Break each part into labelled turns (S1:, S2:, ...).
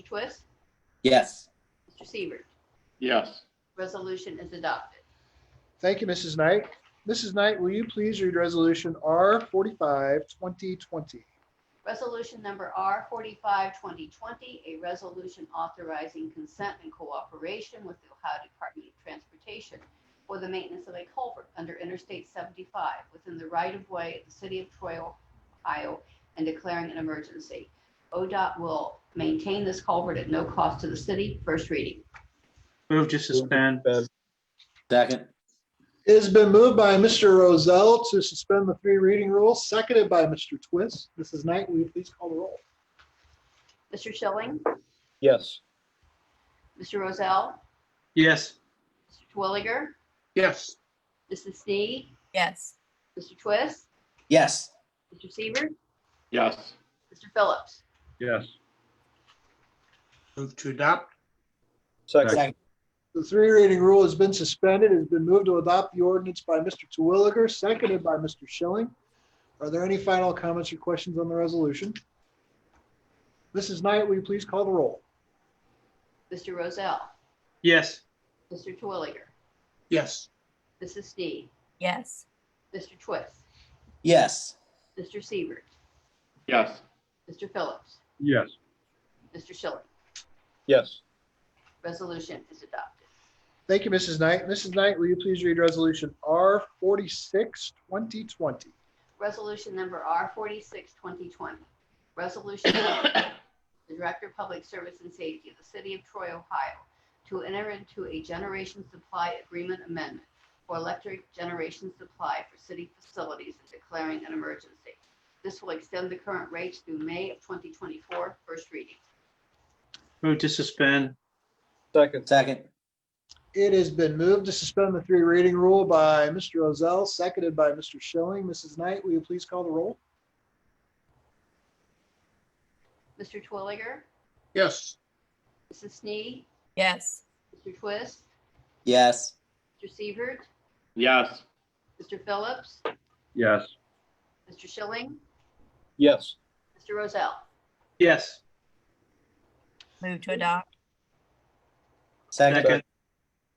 S1: Twist,
S2: Yes.
S1: Mr. Seaver.
S3: Yes.
S1: Resolution is adopted.
S4: Thank you, Mrs. Knight. Mrs. Knight, will you please read resolution R forty-five, twenty twenty?
S1: Resolution number R forty-five twenty twenty, a resolution authorizing consent and cooperation with the Ohio Department of Transportation for the maintenance of a culvert under Interstate seventy-five within the right-of-way of the city of Troy, Ohio, and declaring an emergency. ODOT will maintain this culvert at no cost to the city. First reading.
S5: Move to suspend.
S2: Second.
S4: It has been moved by Mr. Rozell to suspend the three reading rule, seconded by Mr. Twist. Mrs. Knight, will you please call the roll?
S1: Mr. Schilling,
S6: yes,
S1: Mr. Rozell,
S5: Yes.
S1: Mr. Twilliger,
S5: Yes.
S1: Mrs. Snee,
S7: yes,
S1: Mr. Twist,
S2: Yes.
S1: Mr. Seaver,
S3: Yes.
S1: Mr. Phillips.
S3: Yes.
S5: Move to adopt.
S6: second,
S2: Second.
S4: The three reading rule has been suspended. It has been moved to adopt the ordinance by Mr. Terwilliger, seconded by Mr. Schilling. Are there any final comments or questions on the resolution? Mrs. Knight, will you please call the roll?
S1: Mr. Rozell,
S5: Yes.
S1: Mr. Twilliger,
S5: Yes.
S1: Mrs. Snee,
S7: yes,
S1: Mr. Twist,
S2: Yes.
S1: Mr. Seaver,
S3: Yes.
S1: Mr. Phillips,
S3: Yes.
S1: Mr. Schilling.
S6: yes,
S1: Resolution is adopted.
S4: Thank you, Mrs. Knight. Mrs. Knight, will you please read resolution R forty-six, twenty twenty?
S1: Resolution number R forty-six twenty twenty. Resolution authorizing the Director of Public Service and Safety of the City of Troy, Ohio, to enter into a generation supply agreement amendment for electric generation supply for city facilities and declaring an emergency. This will extend the current rates through May of 2024. First reading.
S5: Move to suspend.
S6: second,
S2: Second.
S4: It has been moved to suspend the three reading rule by Mr. Rozell, seconded by Mr. Schilling. Mrs. Knight, will you please call the roll?
S1: Mr. Twilliger,
S5: Yes.
S1: Mrs. Snee,
S7: yes,
S1: Mr. Twist,
S2: Yes.
S1: Mr. Seaver,
S3: Yes.
S1: Mr. Phillips,
S3: Yes.
S1: Mr. Schilling,
S6: yes,
S1: Mr. Rozell.
S5: Yes.
S7: move to adopt,
S2: Second.
S5: Second.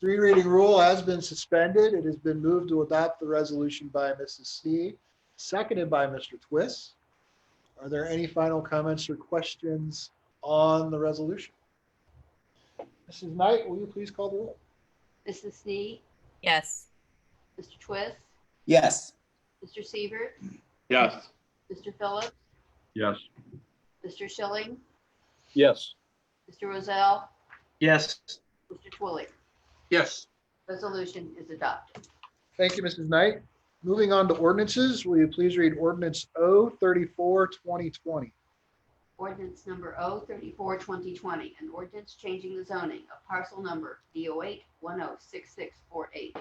S4: Three reading rule has been suspended. It has been moved to adopt the resolution by Mrs. C, seconded by Mr. Twist. Are there any final comments or questions on the resolution? Mrs. Knight, will you please call the roll?
S1: Mrs. Snee,
S7: yes,
S1: Mr. Twist,
S2: Yes.
S1: Mr. Seaver,
S3: Yes.
S1: Mr. Phillips,
S3: Yes.
S1: Mr. Schilling,
S6: yes,
S1: Mr. Rozell,
S5: Yes.
S1: Mr. Twilliger.
S5: Yes.
S1: Resolution is adopted.
S4: Thank you, Mrs. Knight. Moving on to ordinances, will you please read ordinance O thirty-four, twenty twenty?
S1: Ordinance number O thirty-four twenty twenty, an ordinance changing the zoning of parcel number D O eight one oh six six four eight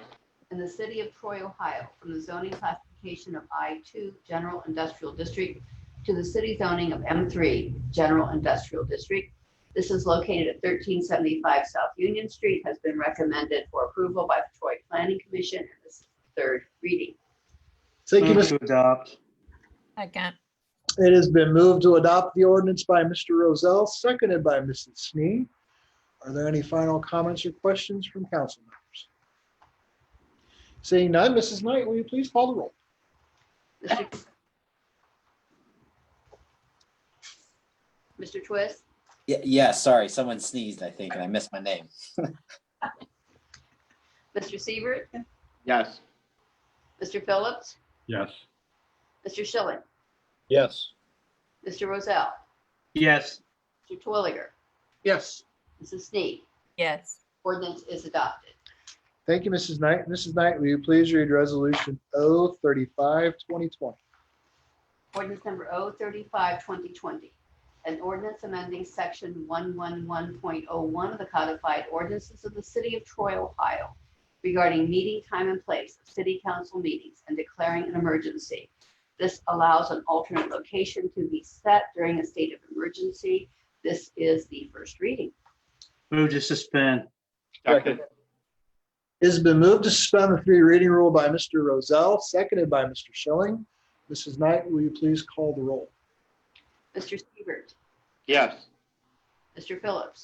S1: in the city of Troy, Ohio, from the zoning classification of I two General Industrial District to the city zoning of M three General Industrial District. This is located at thirteen seventy-five South Union Street, has been recommended for approval by the Troy Planning Commission, and this is the third reading.
S4: Thank you,
S5: Move
S4: Mrs.
S5: to adopt.
S7: second,
S4: It has been moved to adopt the ordinance by Mr. Rozell, seconded by Mrs. Snee. Are there any final comments or questions from council members? Seeing none, Mrs. Knight, will you please call the roll?
S1: Mr. Mr. Twist,
S2: Y- Yes. Sorry, someone sneezed, I think, and I missed my name.
S1: Mr. Siebert,
S3: Yes.
S1: Mr. Phillips,
S3: Yes.
S1: Mr. Schilling,
S6: yes,
S1: Mr. Rozell,
S5: Yes.
S1: Mr. Twilliger,
S5: Yes.
S1: Mrs. Snee.
S7: yes,
S1: Ordinance is adopted.
S4: Thank you, Mrs. Knight. Mrs. Knight, will you please read resolution O thirty-five, twenty twenty?
S1: Ordinance number O thirty-five twenty twenty. An ordinance amending section one one one point oh one of the codified ordinances of the city of Troy, Ohio regarding meeting time and place of city council meetings and declaring an emergency. This allows an alternate location to be set during a state of emergency. This is the first reading.
S5: Move to suspend.
S3: Second.
S4: It has been moved to suspend the three reading rule by Mr. Rozell, seconded by Mr. Schilling. Mrs. Knight, will you please call the roll?
S1: Mr. Siebert,
S3: Yes.
S1: Mr. Phillips?